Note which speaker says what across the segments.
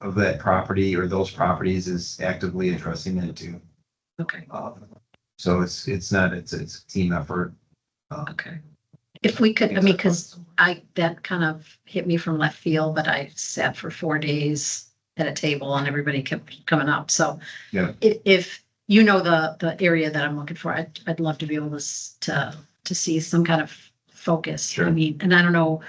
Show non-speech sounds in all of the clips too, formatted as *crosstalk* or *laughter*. Speaker 1: of that property or those properties is actively addressing it too.
Speaker 2: Okay,
Speaker 1: Um, So it's, it's not, it's, it's a team effort. Um,
Speaker 2: okay. If we could, I mean, because I, that kind of hit me from left field, but I sat for four days at a table and everybody kept coming up, so.
Speaker 1: Yeah.
Speaker 2: If, if you know the, the area that I'm looking for, I'd, I'd love to be able to, s- to, to see some kind of focus.
Speaker 1: Sure.
Speaker 2: I mean, and I don't know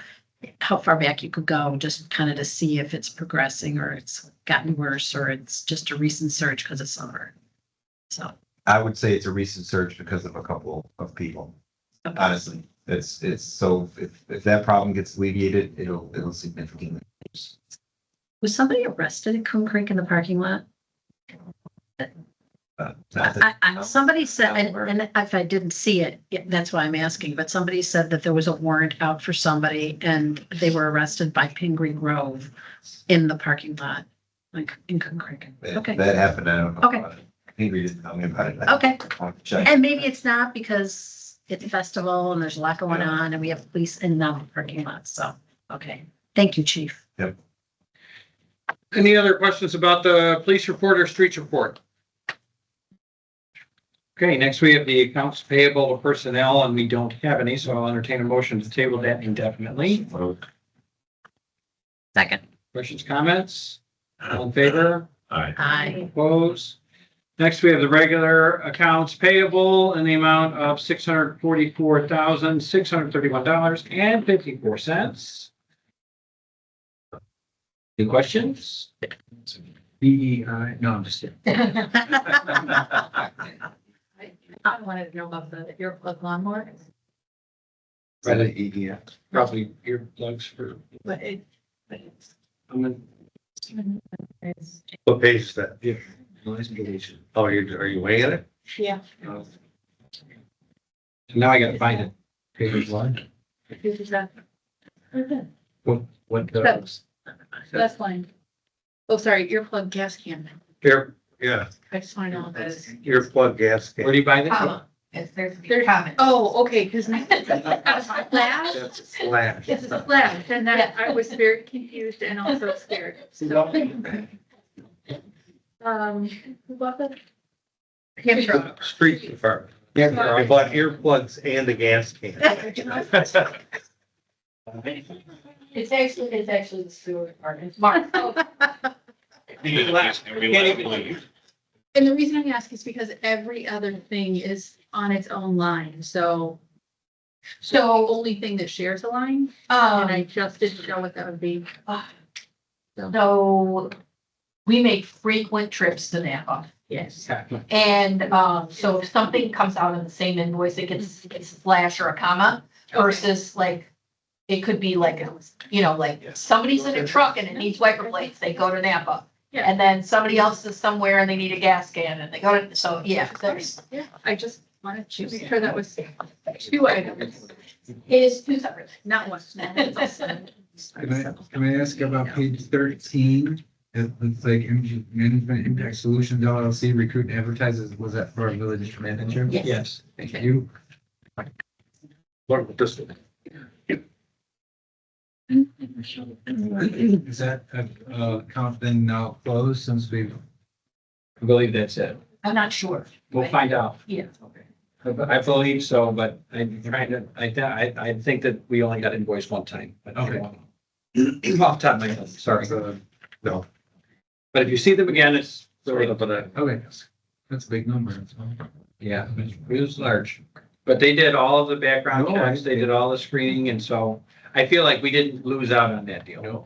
Speaker 2: how far back you could go, just kind of to see if it's progressing or it's gotten worse or it's just a recent surge because of summer. So.
Speaker 1: I would say it's a recent surge because of a couple of people,
Speaker 2: okay.
Speaker 1: honestly. It's, it's, so if, if that problem gets alleviated, it'll, it'll significantly.
Speaker 2: Was somebody arrested at Coon Creek in the parking lot?
Speaker 1: uh, not that-
Speaker 2: I, I, somebody said, and, and if I didn't see it, yeah, that's why I'm asking, but somebody said that there was a warrant out for somebody and they were arrested by Pingree Grove in the parking lot, like in Coon Creek.
Speaker 1: If
Speaker 2: Okay,
Speaker 1: That happened, I don't know.
Speaker 2: Okay.
Speaker 1: about it. Ingrid didn't tell me about it.
Speaker 2: okay.
Speaker 1: I'll check.
Speaker 2: And maybe it's not because it's a festival and there's a lot going on and we have police in the parking lot, so, okay. Thank you, chief.
Speaker 3: Any other questions about the police report or streets report? Okay, next we have the accounts payable to personnel, and we don't have any, so I'll entertain a motion to table that indefinitely.
Speaker 2: Second.
Speaker 3: Questions, comments? All in favor?
Speaker 4: Aye.
Speaker 2: Aye.
Speaker 3: Opposed? Next, we have the regular accounts payable in the amount of six hundred forty-four thousand, six hundred thirty-one dollars and fifty-four cents. Any questions? B E I, no, I'm just kidding.
Speaker 2: I wanted to know about the earplug lawnmower.
Speaker 3: Probably
Speaker 4: E
Speaker 3: Probably earplugs for,
Speaker 2: But it, but it's.
Speaker 3: I'm in.
Speaker 4: What page is that?
Speaker 3: Yeah.
Speaker 4: Oh, are you, are *laughs* you weighing it?
Speaker 2: Yeah.
Speaker 3: Now I gotta find it. Page one. What, what, uh,
Speaker 2: That's line. Oh, sorry, earplug gas can.
Speaker 4: Ear, yeah,
Speaker 2: I just want to know what that is.
Speaker 4: earplug gas.
Speaker 3: where do you buy that?
Speaker 5: Yes, there's.
Speaker 2: There's- Oh, okay, because. Flash?
Speaker 4: That's a slash.
Speaker 5: It's a flash, and that, I was very confused and also scared. Um, who bought that? Hamtramck.
Speaker 4: Street department.
Speaker 3: Yeah,
Speaker 4: I
Speaker 3: they're all-
Speaker 4: bought earplugs and a
Speaker 6: *laughs*
Speaker 4: gas can.
Speaker 5: It's actually, it's actually the sewer department. Mark.
Speaker 3: Can't even-
Speaker 5: And the reason I ask is because every other thing is on its own line, so. So only thing that shares a line, and I
Speaker 7: Um, ah.
Speaker 5: just didn't know what that would be.
Speaker 7: so we make frequent trips to Napa.
Speaker 5: Yes.
Speaker 7: And, um, so if something comes out in the same invoice, it gets, gets a slash or a comma versus like, it could be like, you know, like somebody's in a truck and it needs wiper blades, they go to Napa.
Speaker 5: Yeah.
Speaker 7: And then somebody else is somewhere and they need a gas can and they go to, so yeah, there's,
Speaker 5: Yeah, I just wanted to make
Speaker 2: *laughs*
Speaker 5: sure that was two items,
Speaker 7: it is two separate.
Speaker 5: not one.
Speaker 6: Can I, can I ask about page thirteen? It looks like MG Management Impact Solutions LLC recruit and advertises, was that for our village manager?
Speaker 7: Yes.
Speaker 3: Yes.
Speaker 6: Thank you.
Speaker 4: What with this?
Speaker 6: Is that, uh, uh, account then now closed since we've,
Speaker 3: I believe that's it.
Speaker 7: I'm not sure.
Speaker 3: We'll find out.
Speaker 7: Yeah.
Speaker 3: I I believe so, but I'm trying to, I, I, I think that we only got invoiced one time. but I don't know. *clears throat* Off the top of my head, sorry.
Speaker 6: uh,
Speaker 3: But if you see them again, it's, sort of a-
Speaker 6: okay, that's a big number. that's all.
Speaker 3: yeah, it was large. But they did all of the background
Speaker 6: No, I-
Speaker 3: checks, they did all the screening, and so I feel like we didn't lose out on that deal.
Speaker 6: No.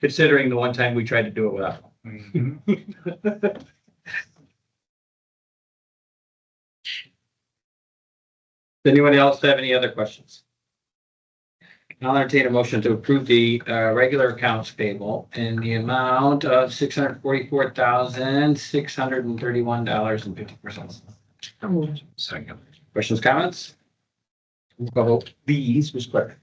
Speaker 3: Considering the one time we tried to do it without. them. Mm-hmm.
Speaker 6: Mhm.
Speaker 3: Does anyone else have any other questions? I'll entertain a motion to approve the uh, regular accounts payable in the amount of six hundred forty-four thousand, six hundred and thirty-one dollars and fifty-four cents.
Speaker 4: Second.
Speaker 3: Questions, comments? Roll call vote, please, Ms. Clerk.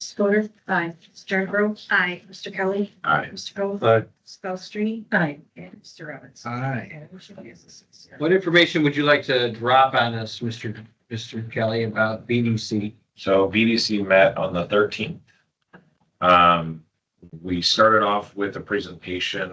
Speaker 8: Scotter, aye. Sternbro, aye. Mr. Kelly,
Speaker 4: All right.
Speaker 8: Mr. Cole,
Speaker 3: Uh,
Speaker 4: Aye.
Speaker 8: Stelstrini,
Speaker 2: Aye.
Speaker 8: and Mr. Robbins.
Speaker 6: Aye.
Speaker 8: And motion passes six zero.
Speaker 3: What information would you like to drop on us, Mr. Mr. Kelly, about BDC?
Speaker 4: So BDC met on the thirteenth. Um, we started off with a presentation